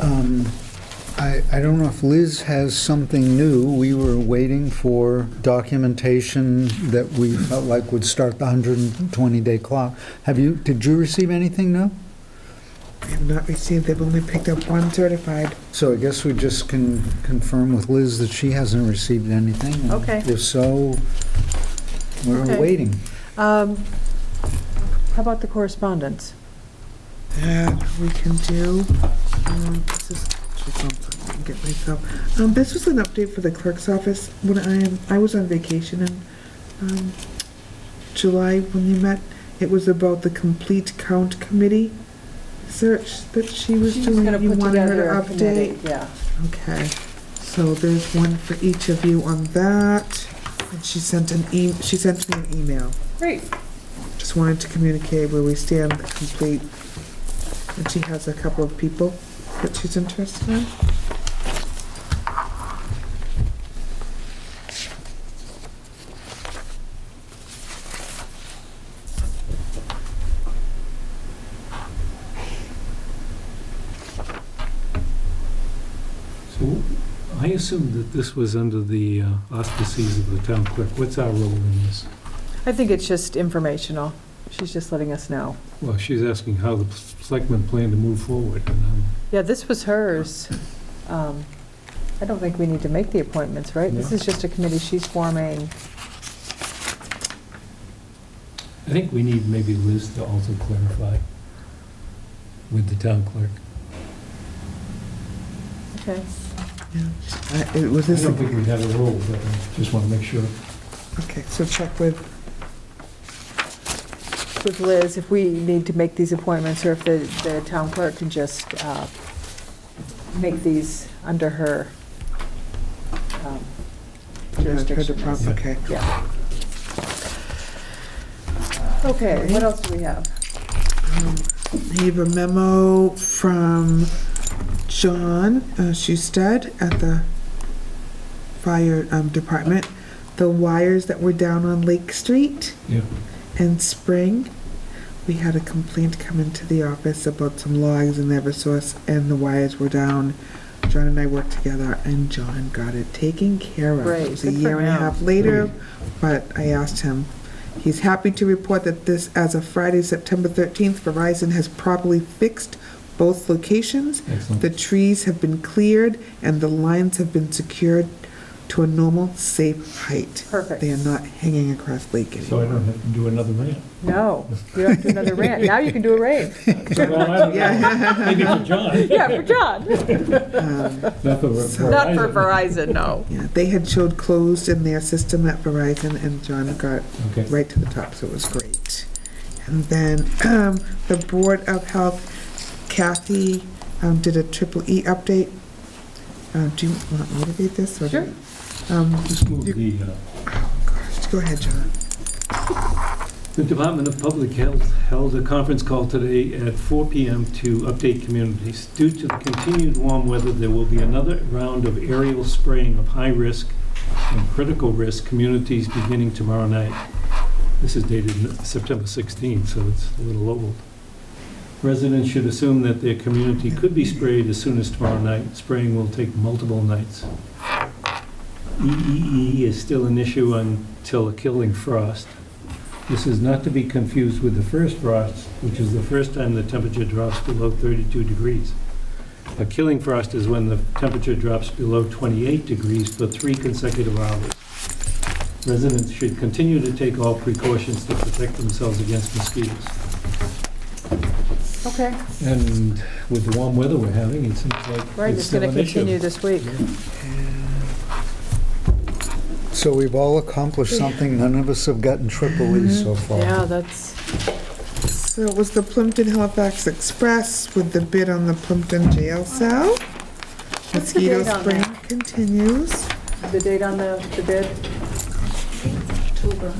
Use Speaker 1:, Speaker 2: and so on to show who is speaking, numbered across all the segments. Speaker 1: Um, I, I don't know if Liz has something new. We were waiting for documentation that we felt like would start the 120-day clock. Have you, did you receive anything new?
Speaker 2: I have not received, they've only picked up one certified.
Speaker 1: So I guess we just can confirm with Liz that she hasn't received anything. and
Speaker 3: Okay.
Speaker 1: If so, we're
Speaker 3: Okay.
Speaker 1: waiting.
Speaker 3: Um, How about the correspondence?
Speaker 2: That we can do, um, this is, just one second, I can get myself, um, this was an update for the clerk's office when I, I was on vacation in, um, July when you met. It was about the complete count committee search that she was
Speaker 3: She's
Speaker 2: doing.
Speaker 3: gonna
Speaker 2: You
Speaker 3: put
Speaker 2: wanted her
Speaker 3: together
Speaker 2: to
Speaker 3: a committee,
Speaker 2: update?
Speaker 3: Yeah.
Speaker 2: Okay, so there's one for each of you on that. And she sent an e, she sent me an email.
Speaker 3: Great.
Speaker 2: Just wanted to communicate where we stand, the complete. And she has a couple of people that she's interested in.
Speaker 4: So I assume that this was under the uh, auspices of the town clerk. What's our role in this?
Speaker 3: I think it's just informational. She's just letting us know.
Speaker 4: Well, she's asking how the selectmen plan to move forward. and, um,
Speaker 3: Yeah, this was hers. Um, I don't think we need to make the appointments, right? This
Speaker 4: No.
Speaker 3: is just a committee she's forming.
Speaker 4: I think we need maybe Liz to also clarify with the town clerk.
Speaker 3: Okay.
Speaker 2: Uh, It was
Speaker 4: I
Speaker 2: this,
Speaker 4: don't think we have a role, but I just want to make sure.
Speaker 2: okay, so check with,
Speaker 3: With Liz, if we need to make these appointments, or if the, the town clerk can just uh, make these under her um,
Speaker 2: her
Speaker 3: jurisdiction.
Speaker 2: department, okay.
Speaker 3: Yeah. Okay, what else do we have?
Speaker 2: Um, I have a memo from John uh, Schusted at the fire um, department. The wires that were down on Lake Street
Speaker 4: Yeah.
Speaker 2: and Spring, we had a complaint come into the office about some logs in Eversource and the wires were down. John and I worked together and John got it taken care of.
Speaker 3: Great,
Speaker 2: It was a
Speaker 3: good for
Speaker 2: year and a
Speaker 3: him.
Speaker 2: half later, but I asked him, he's happy to report that this, as of Friday, September 13th, Verizon has properly fixed both locations.
Speaker 4: Excellent.
Speaker 2: The trees have been cleared and the lines have been secured to a normal, safe height.
Speaker 3: Perfect.
Speaker 2: They are not hanging across lake
Speaker 4: So I
Speaker 2: anymore.
Speaker 4: don't have to do another rant.
Speaker 3: No, you don't have to do another rant. Now you can do a rant.
Speaker 4: Well, I don't know.
Speaker 2: Yeah.
Speaker 4: Maybe for John.
Speaker 3: Yeah, for John.
Speaker 2: Um,
Speaker 4: Not for
Speaker 3: Not for Verizon,
Speaker 4: Verizon.
Speaker 3: no.
Speaker 2: Yeah, they had showed closed in their system at Verizon, and John got
Speaker 4: Okay.
Speaker 2: right to the top, so it was great. And then um, the Board of Health, Kathy um, did a triple E update. Um, Do you want me to read this? or do you- Um,
Speaker 4: Just move the, uh,
Speaker 2: gosh, Go ahead, John.
Speaker 4: The Department of Public Health held a conference call today at 4 PM to update communities. Due to the continued warm weather, there will be another round of aerial spraying of high-risk and critical-risk communities beginning tomorrow night. This is dated September 16, so it's a little old. Residents should assume that their community could be sprayed as soon as tomorrow night. Spraying will take multiple nights. EEE is still an issue until a killing frost. This is not to be confused with the first frost, which is the first time the temperature drops below 32 degrees. A killing frost is when the temperature drops below 28 degrees for three consecutive hours. Residents should continue to take all precautions to protect themselves against mosquitoes.
Speaker 3: Okay,
Speaker 4: And with the warm weather we're having, it seems like
Speaker 3: right,
Speaker 4: it's
Speaker 3: it's
Speaker 4: still
Speaker 3: going to
Speaker 4: an
Speaker 3: continue
Speaker 4: issue.
Speaker 3: this week.
Speaker 1: So we've all accomplished something. None of us have gotten triple E so far.
Speaker 3: Mm-hmm. Yeah, that's,
Speaker 2: So it was the Plimpton Halifax Express with the bid on the Plimpton jail cell.
Speaker 3: What's the date
Speaker 2: Mosquito
Speaker 3: on
Speaker 2: spraying continues.
Speaker 3: the date on the, the bid?
Speaker 5: October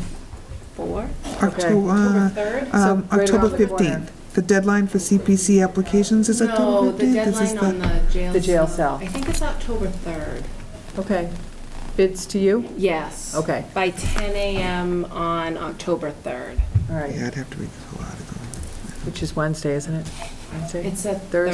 Speaker 5: 4, October
Speaker 2: October,
Speaker 5: 3rd?
Speaker 2: um,
Speaker 3: So right
Speaker 2: October
Speaker 3: around the corner.
Speaker 2: 15th. The deadline for CPC applications is
Speaker 5: No,
Speaker 2: October 15th?
Speaker 5: the
Speaker 2: This is
Speaker 5: deadline on the jail.
Speaker 3: The jail cell.
Speaker 5: I think it's October 3rd.
Speaker 3: Okay. Bids to you?
Speaker 5: Yes.
Speaker 3: Okay,
Speaker 5: By 10 a.m. on October 3rd.
Speaker 3: all right,
Speaker 2: Yeah, I'd have to read the whole article.
Speaker 3: which is Wednesday, isn't it? Wednesday?
Speaker 5: It's a
Speaker 3: Thursday.